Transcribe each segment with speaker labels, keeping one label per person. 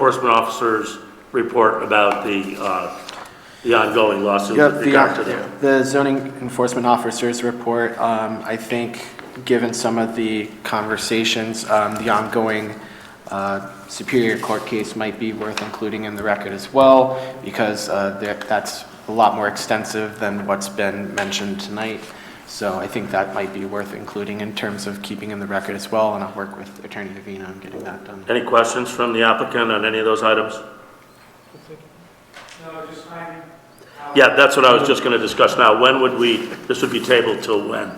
Speaker 1: enforcement officer's report about the, uh, the ongoing lawsuit
Speaker 2: Yeah,
Speaker 1: with regard to
Speaker 2: the,
Speaker 1: them.
Speaker 2: the zoning enforcement officer's report, um, I think, given some of the conversations, um, the ongoing, uh, Superior Court case might be worth including in the record as well, because, uh, there- that's a lot more extensive than what's been mentioned tonight. So I think that might be worth including in terms of keeping in the record as well, and I'll work with Attorney Davina on getting that done.
Speaker 1: Any questions from the applicant on any of those items?
Speaker 3: No, just finding out.
Speaker 1: Yeah, that's what I was just gonna discuss now. When would we, this would be tabled till when?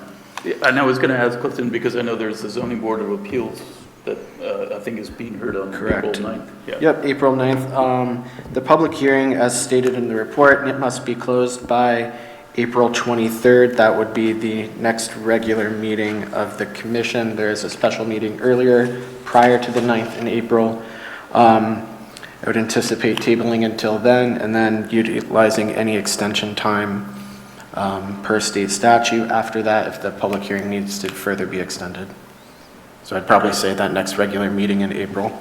Speaker 4: Yeah, And I was going to ask Clifton, because I know there's the zoning board of appeals that uh, I think is being heard on April
Speaker 2: Correct.
Speaker 4: 9th. Yeah.
Speaker 2: Yep, April 9th. Um, The public hearing, as stated in the report, it must be closed by April 23rd. That would be the next regular meeting of the commission. There is a special meeting earlier, prior to the 9th in April. Um, I would anticipate tabling until then, and then utilizing any extension time um, per state statute after that, if the public hearing needs to further be extended. So I'd probably say that next regular meeting in April.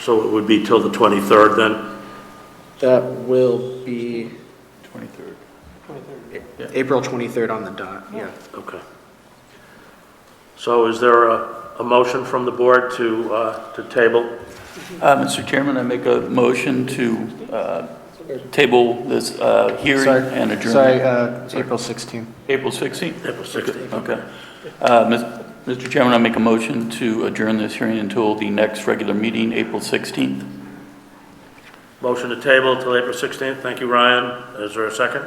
Speaker 1: So it would be till the 23rd then?
Speaker 2: That will be
Speaker 4: 23rd.
Speaker 2: April 23rd on the dot, yeah.
Speaker 1: Okay. So is there a, a motion from the board to, uh, to table?
Speaker 4: Uh, Mr. Chairman, I make a motion to uh, table this uh, hearing
Speaker 2: Sorry,
Speaker 4: and adjourn.
Speaker 2: Sorry, uh, April 16th.
Speaker 4: April 16th?
Speaker 1: April 16th.
Speaker 4: Okay. Uh, Mis- Mr. Chairman, I make a motion to adjourn this hearing until the next regular meeting, April 16th.
Speaker 1: Motion to table till April 16th. Thank you, Ryan. Is there a second?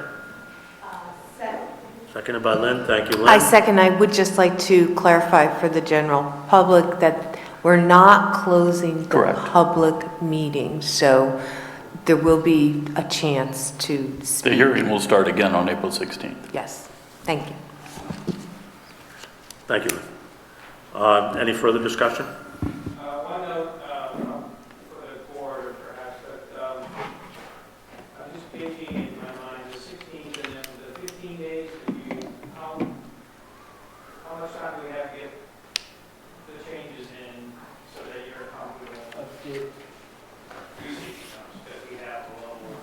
Speaker 1: Seconded by Lynn. Thank you, Lynn.
Speaker 5: I second, I would just like to clarify for the general public that we're not closing the
Speaker 4: Correct.
Speaker 5: public meeting, so there will be a chance to
Speaker 4: The
Speaker 5: speak.
Speaker 4: hearing will start again on April 16th.
Speaker 5: Yes, thank you.
Speaker 1: Thank you. Uh, Any further discussion?
Speaker 3: Uh, One note um, for the board perhaps, but um, I'm just thinking in my mind, the 16th and then the 15 days, if you, how, how much time do we have to get the changes in so that you're comfortable using those that we have available?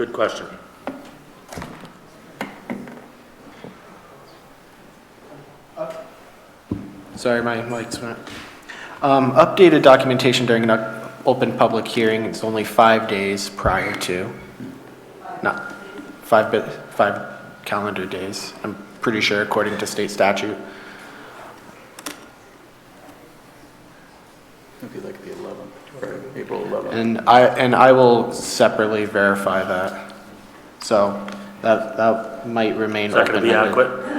Speaker 1: Good question.
Speaker 2: Sorry, my mic's not. Um, Updated documentation during an o- open public hearing is only five days prior to, not, five, bit five calendar days, I'm pretty sure, according to state statute.
Speaker 4: It'll be like the 11th, or April 11th.
Speaker 2: And I, and I will separately verify that. So that, that might remain
Speaker 1: Is that going to be
Speaker 2: open-ended.
Speaker 1: adequate?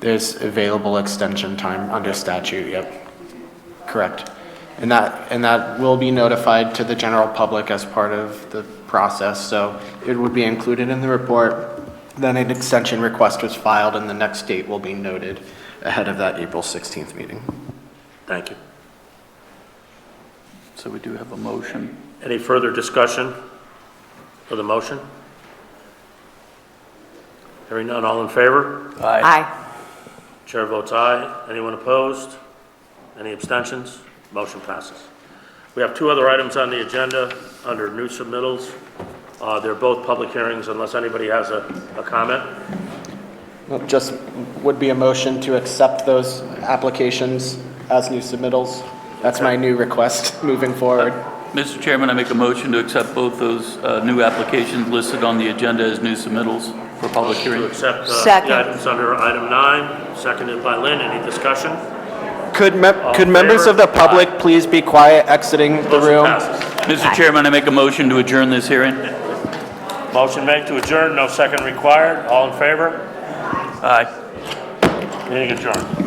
Speaker 2: There's available extension time under statute, yep. Correct. And that, and that will be notified to the general public as part of the process, so it would be included in the report. Then an extension request was filed, and the next date will be noted ahead of that April 16th meeting.
Speaker 1: Thank you.
Speaker 4: So we do have a motion.
Speaker 1: Any further discussion for the motion? Hearing none, all in favor?
Speaker 5: Aye.
Speaker 1: Chair votes aye. Anyone opposed? Any abstentions? Motion passes. We have two other items on the agenda under new submittals. Uh, They're both public hearings unless anybody has a, a comment.
Speaker 2: Well, Just would be a motion to accept those applications as new submittals. That's my new request moving forward.
Speaker 4: Mr. Chairman, I make a motion to accept both those uh, new applications listed on the agenda as new submittals for public
Speaker 1: To
Speaker 4: hearing.
Speaker 1: accept uh,
Speaker 5: Second.
Speaker 1: the items under item nine, seconded by Lynn. Any discussion?
Speaker 2: Could,
Speaker 1: All
Speaker 2: mem-
Speaker 1: in
Speaker 2: could members of the
Speaker 1: favor?
Speaker 2: public please be quiet exiting the
Speaker 1: Motion
Speaker 2: room?
Speaker 1: passes.
Speaker 4: Mr. Chairman, I make a motion to adjourn this hearing.
Speaker 1: Motion made to adjourn, no second required. All in favor?
Speaker 4: Aye.
Speaker 1: Meeting adjourned.